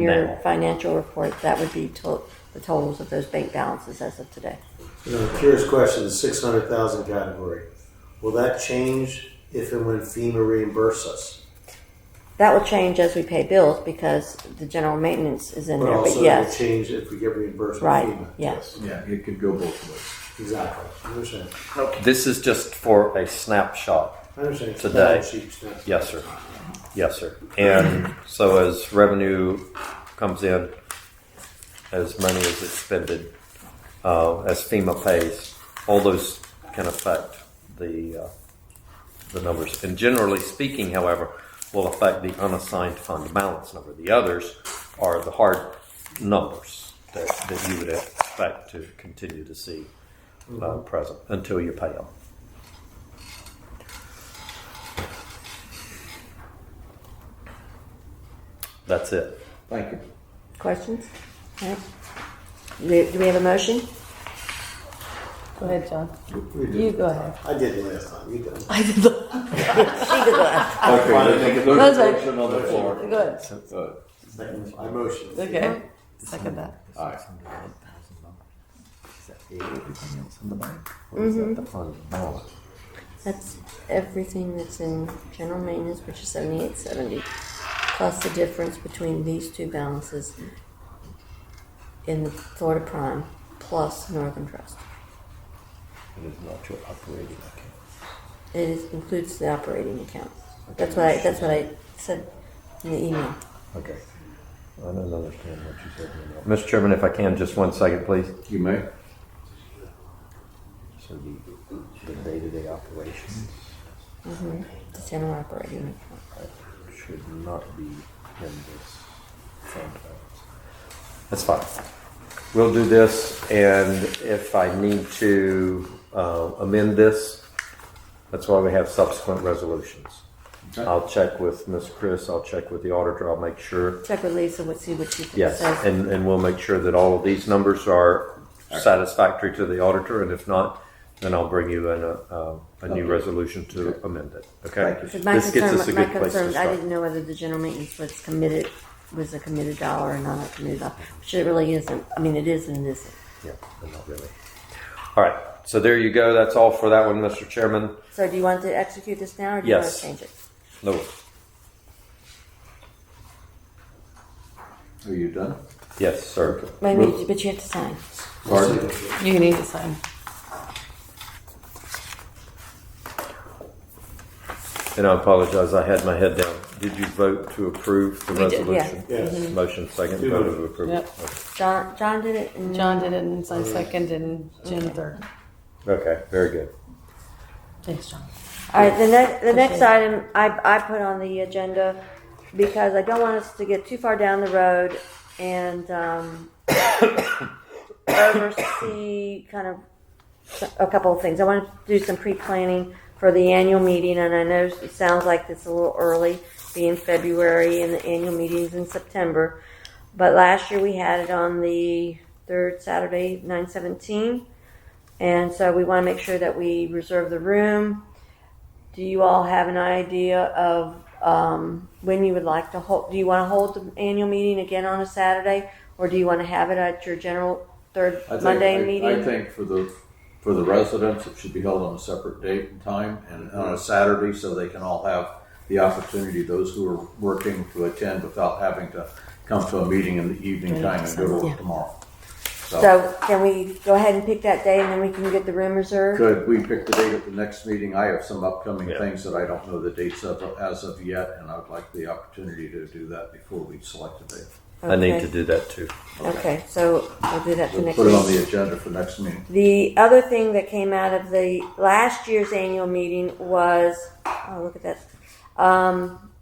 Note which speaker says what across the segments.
Speaker 1: your
Speaker 2: Now.
Speaker 1: financial report, that would be to- the totals of those bank balances as of today.
Speaker 3: You know, curious question, the six hundred thousand category. Will that change if and when FEMA reimburses us?
Speaker 1: That will change as we pay bills because the general maintenance is in
Speaker 3: But
Speaker 1: there, but
Speaker 3: also it will
Speaker 1: yes,
Speaker 3: change if we get reimbursed by
Speaker 1: right,
Speaker 3: FEMA.
Speaker 1: yes.
Speaker 4: Yeah, it could go both ways.
Speaker 3: Exactly. I understand.
Speaker 2: This is just for a snapshot.
Speaker 3: I understand. It's a
Speaker 2: Today.
Speaker 3: balance sheet stuff.
Speaker 2: Yes, sir. Yes, sir. And so as revenue comes in, as money is expended, uh, as FEMA pays, all those can affect the, uh, the numbers. And generally speaking, however, will affect the unassigned fund balance number. The others are the hard numbers that, that you would expect to continue to see uh, present until you pay them. That's it.
Speaker 4: Thank you.
Speaker 1: Questions? All right. Do do we have a motion?
Speaker 5: Go ahead, John.
Speaker 3: We did.
Speaker 5: You go ahead.
Speaker 3: I did it last time. You did.
Speaker 5: I did the.
Speaker 4: Okay, let's make a
Speaker 5: That's right.
Speaker 4: motion on the floor.
Speaker 5: Good.
Speaker 4: Uh,
Speaker 3: Second, I motioned.
Speaker 5: Okay. Second that.
Speaker 4: Aye.
Speaker 6: Everything else in the bank? Or is that the fund balance?
Speaker 1: That's everything that's in general maintenance, which is seventy-eight seventy, plus the difference between these two balances in the Florida Prime, plus Northern Trust.
Speaker 6: It is not your operating account.
Speaker 1: It is- includes the operating account. That's what I, that's what I said in the email.
Speaker 6: Okay. I don't understand what you said. Lynell.
Speaker 2: Mr. Chairman, if I can, just one second, please.
Speaker 4: You may.
Speaker 6: So the, the day-to-day operations
Speaker 1: The general operating account.
Speaker 6: should not be in this fund balance.
Speaker 2: That's fine. We'll do this, and if I need to uh, amend this, that's why we have subsequent resolutions.
Speaker 4: Okay.
Speaker 2: I'll check with Ms. Chris, I'll check with the auditor, I'll make sure,
Speaker 1: Check with Lisa, what, see what she
Speaker 2: yes,
Speaker 1: says.
Speaker 2: and, and we'll make sure that all of these numbers are satisfactory to the auditor, and if not, then I'll bring you in a, a- a new
Speaker 4: Okay.
Speaker 2: resolution to amend it, okay?
Speaker 4: Thank
Speaker 1: 'Cause my
Speaker 2: This gets
Speaker 1: concern-
Speaker 2: us a
Speaker 1: my
Speaker 2: good place to
Speaker 1: concern, I
Speaker 2: start.
Speaker 1: didn't know whether the general maintenance was committed, was a committed dollar or not a committed dollar, which it really isn't. I mean, it is and it isn't.
Speaker 2: Yeah, not really. All right, so there you go, that's all for that one, Mr. Chairman.
Speaker 1: So do you want to execute this now or do you want to
Speaker 2: Yes.
Speaker 1: change it?
Speaker 2: No,
Speaker 4: Are you done?
Speaker 2: yes, sir.
Speaker 1: Wait, wait, but you have to sign.
Speaker 4: Pardon?
Speaker 5: You need to sign.
Speaker 2: And I apologize, I had my head down. Did you vote to approve the
Speaker 5: We did, yeah.
Speaker 2: resolution?
Speaker 3: Yes.
Speaker 2: Motion second,
Speaker 3: Two
Speaker 2: vote
Speaker 3: votes.
Speaker 2: of approval.
Speaker 5: Yep.
Speaker 1: John, John did it and
Speaker 5: John did it, and so I second, and Jim third.
Speaker 2: Okay, very good.
Speaker 5: Thanks, John.
Speaker 1: All right, the next, the next
Speaker 5: Okay.
Speaker 1: item I, I put on the agenda because I don't want us to get too far down the road and, um, oversee kind of s- a couple of things. I want to do some pre-planning for the annual meeting and I know it sounds like it's a little early, being February and the annual meeting's in September. But last year we had it on the third Saturday, nine seventeen. And so we want to make sure that we reserve the room. Do you all have an idea of um, when you would like to hold? Do you want to hold the annual meeting again on a Saturday, or do you want to have it at your general third
Speaker 4: I think-
Speaker 1: Monday
Speaker 4: I-
Speaker 1: meeting?
Speaker 4: I think for the, for the residents, it should be held on a separate date and time and on a Saturday so they can all have the opportunity, those who are working to attend without having to come to a meeting in the evening time and go to work tomorrow. So
Speaker 1: so can we go ahead and pick that day, and then we can get the room reserved?
Speaker 4: could we pick the date at the next meeting? I have some upcoming
Speaker 2: Yeah.
Speaker 4: things that I don't know the dates of as of yet, and I would like the opportunity to do that before we select a date.
Speaker 2: I need
Speaker 1: Okay.
Speaker 2: to do that too.
Speaker 1: Okay, so we'll do that for
Speaker 4: We'll
Speaker 1: next
Speaker 4: put it on
Speaker 1: week.
Speaker 4: the agenda for next meeting.
Speaker 1: The other thing that came out of the last year's annual meeting was, oh, look at that. Um,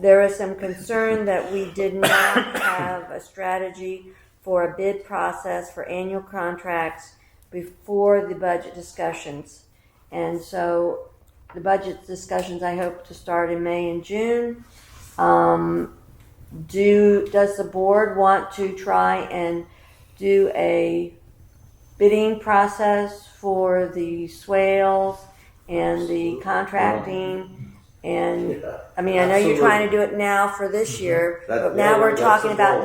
Speaker 1: there was some concern that we did not have a strategy for a bid process for annual contracts before the budget discussions. And so the budget discussions, I hope to start in May and June. Um, do, does the board want to try and do a bidding process for the swales and the contracting
Speaker 7: And
Speaker 4: Yeah.
Speaker 7: I mean, I know you're trying
Speaker 4: Absolutely.
Speaker 7: to do it now for this year,
Speaker 3: That-
Speaker 7: but now we're
Speaker 4: That's
Speaker 7: talking
Speaker 4: the
Speaker 7: about
Speaker 4: goal.